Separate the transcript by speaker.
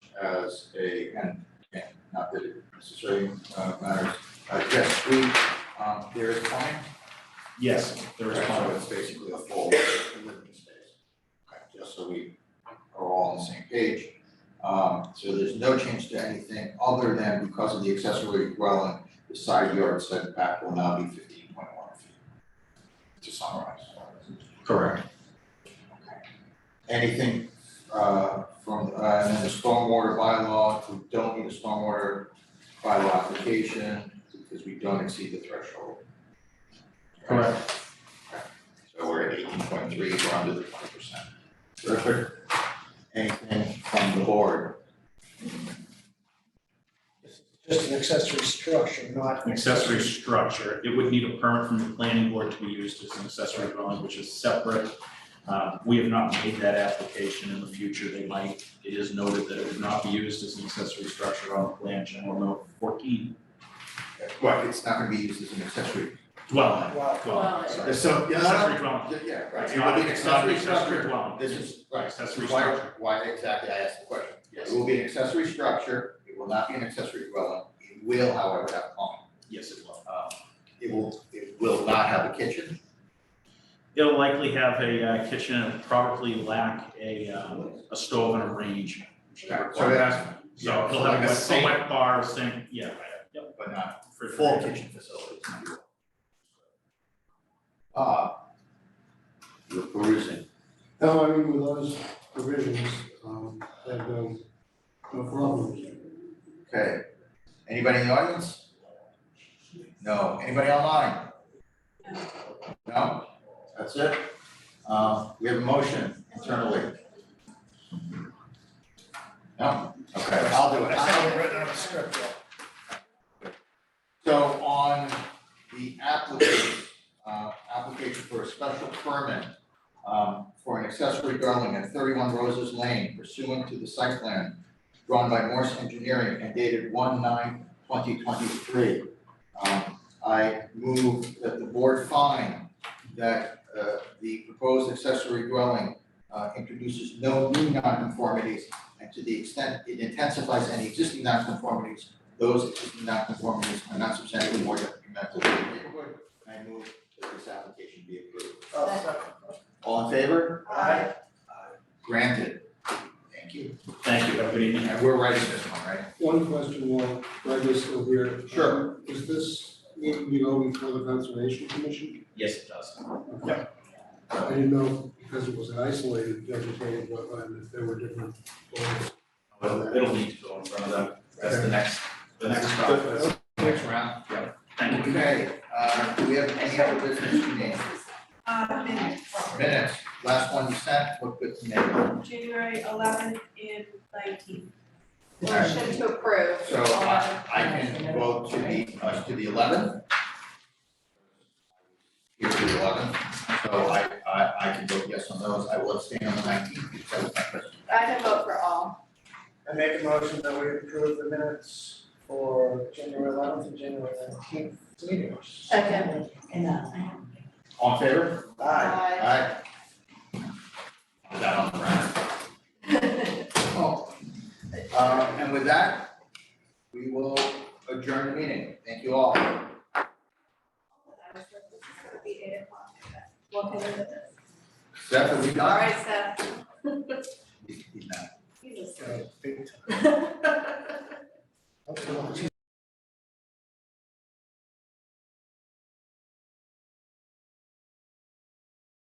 Speaker 1: as a, and, and not that it necessarily uh, matters, uh, jet ski, um, there is plumbing?
Speaker 2: Yes, there is
Speaker 1: Right, So
Speaker 2: plumbing.
Speaker 1: it's basically a full living space. Okay, Just so we are all on the same page. Um, so there's no change to anything other than because of the accessory dwelling, the side yard setback will now be fifteen point one feet. To summarize.
Speaker 2: Correct.
Speaker 1: Anything, uh, from, uh, and then the stormwater bylaw, we don't need a stormwater bylaw application because we don't exceed the threshold. Right?
Speaker 2: Correct.
Speaker 1: So we're at eighteen point three, we're under the twenty percent. Perfect. Anything from the board?
Speaker 3: Just an accessory structure, not.
Speaker 2: An accessory structure, it would need a permit from the planning board to be used as an accessory dwelling, which is separate. Uh, we have not made that application in the future, they might, it is noted that it would not be used as an accessory structure on the plan, general note fourteen.
Speaker 1: Well, it's not gonna be used as an accessory.
Speaker 2: Dwelling,
Speaker 3: Well,
Speaker 2: dwelling,
Speaker 4: Dwelling.
Speaker 2: sorry.
Speaker 1: Uh, So,
Speaker 2: Accessory dwelling.
Speaker 1: Yeah, right.
Speaker 2: It's
Speaker 1: It would
Speaker 2: not,
Speaker 1: be an
Speaker 2: it's not an
Speaker 1: accessory
Speaker 2: accessory
Speaker 1: structure.
Speaker 2: dwelling.
Speaker 1: This is, right.
Speaker 2: Accessory
Speaker 1: Why,
Speaker 2: structure,
Speaker 1: why exactly I asked the question. It
Speaker 2: yes,
Speaker 1: will be an accessory structure, it will not be an accessory dwelling, it will however have plumbing.
Speaker 2: yes, it will.
Speaker 1: Um, It will, it will not have a kitchen,
Speaker 2: It'll likely have a uh, kitchen and probably lack a, um, a stove and a range. which is
Speaker 1: Right, so
Speaker 2: required.
Speaker 1: that's-
Speaker 2: So
Speaker 1: so
Speaker 2: it'll
Speaker 1: like a
Speaker 2: have a wet, a
Speaker 1: sink.
Speaker 2: wet bar, sink, yeah, right, yep.
Speaker 1: but not
Speaker 2: for
Speaker 1: full kitchen facilities. Uh, you're perusing.
Speaker 5: No, I mean, with those provisions, um, I have no, no problems.
Speaker 1: Okay, anybody in the audience? No, anybody online? No, that's it? Uh, we have a motion internally. No, okay, I'll do it.
Speaker 3: I haven't written out a script yet.
Speaker 1: So on the applicant, uh, application for a special permit, um, for an accessory dwelling at thirty-one Roses Lane pursuant to the site plan drawn by Morse Engineering and dated one nine twenty twenty-three. Um, I move that the board find that, uh, the proposed accessory dwelling, uh, introduces no new nonconformities and to the extent it intensifies any existing nonconformities, those existing nonconformities are not substantially more detrimental to the neighborhood. I move that this application be approved.
Speaker 3: Oh,
Speaker 1: All in favor?
Speaker 4: Aye.
Speaker 1: Granted. Thank you.
Speaker 2: Thank you, have a good evening.
Speaker 1: And we're writing this one, right?
Speaker 5: One question while Greg is still here.
Speaker 1: Sure.
Speaker 5: Um, Is this, need to be go before the conservation commission?
Speaker 2: Yes, it does.
Speaker 5: I didn't know, because it was an isolated vegetated wetland, if there were different. orders.
Speaker 2: It'll, it'll need to go in front of them, that's the next, the next stop.
Speaker 5: But-
Speaker 1: Next round.
Speaker 2: Thank you.
Speaker 1: Okay, uh, do we have any other business to name?
Speaker 6: Uh, minutes,
Speaker 1: Minutes, last one you sent, what good to name?
Speaker 6: January eleventh and nineteenth.
Speaker 4: Motion to approve.
Speaker 1: So uh, I, I can vote to the, uh, to the eleventh. Here to the eleventh, so I, I, I can vote yes on those, I will abstain on the nineteenth, because that was my question.
Speaker 4: I can vote for all.
Speaker 3: I make a motion that we approve the minutes for January eleventh and January nineteenth meetings.
Speaker 4: Second.
Speaker 1: All in favor?
Speaker 3: Aye.
Speaker 1: Aye. Put That on the record. Oh, um, and with that, we will adjourn the meeting. Thank you all. Seth, are we
Speaker 4: All
Speaker 1: done?
Speaker 4: right, Seth.
Speaker 1: He's- he's not.
Speaker 4: Jesus.
Speaker 3: Okay, big time.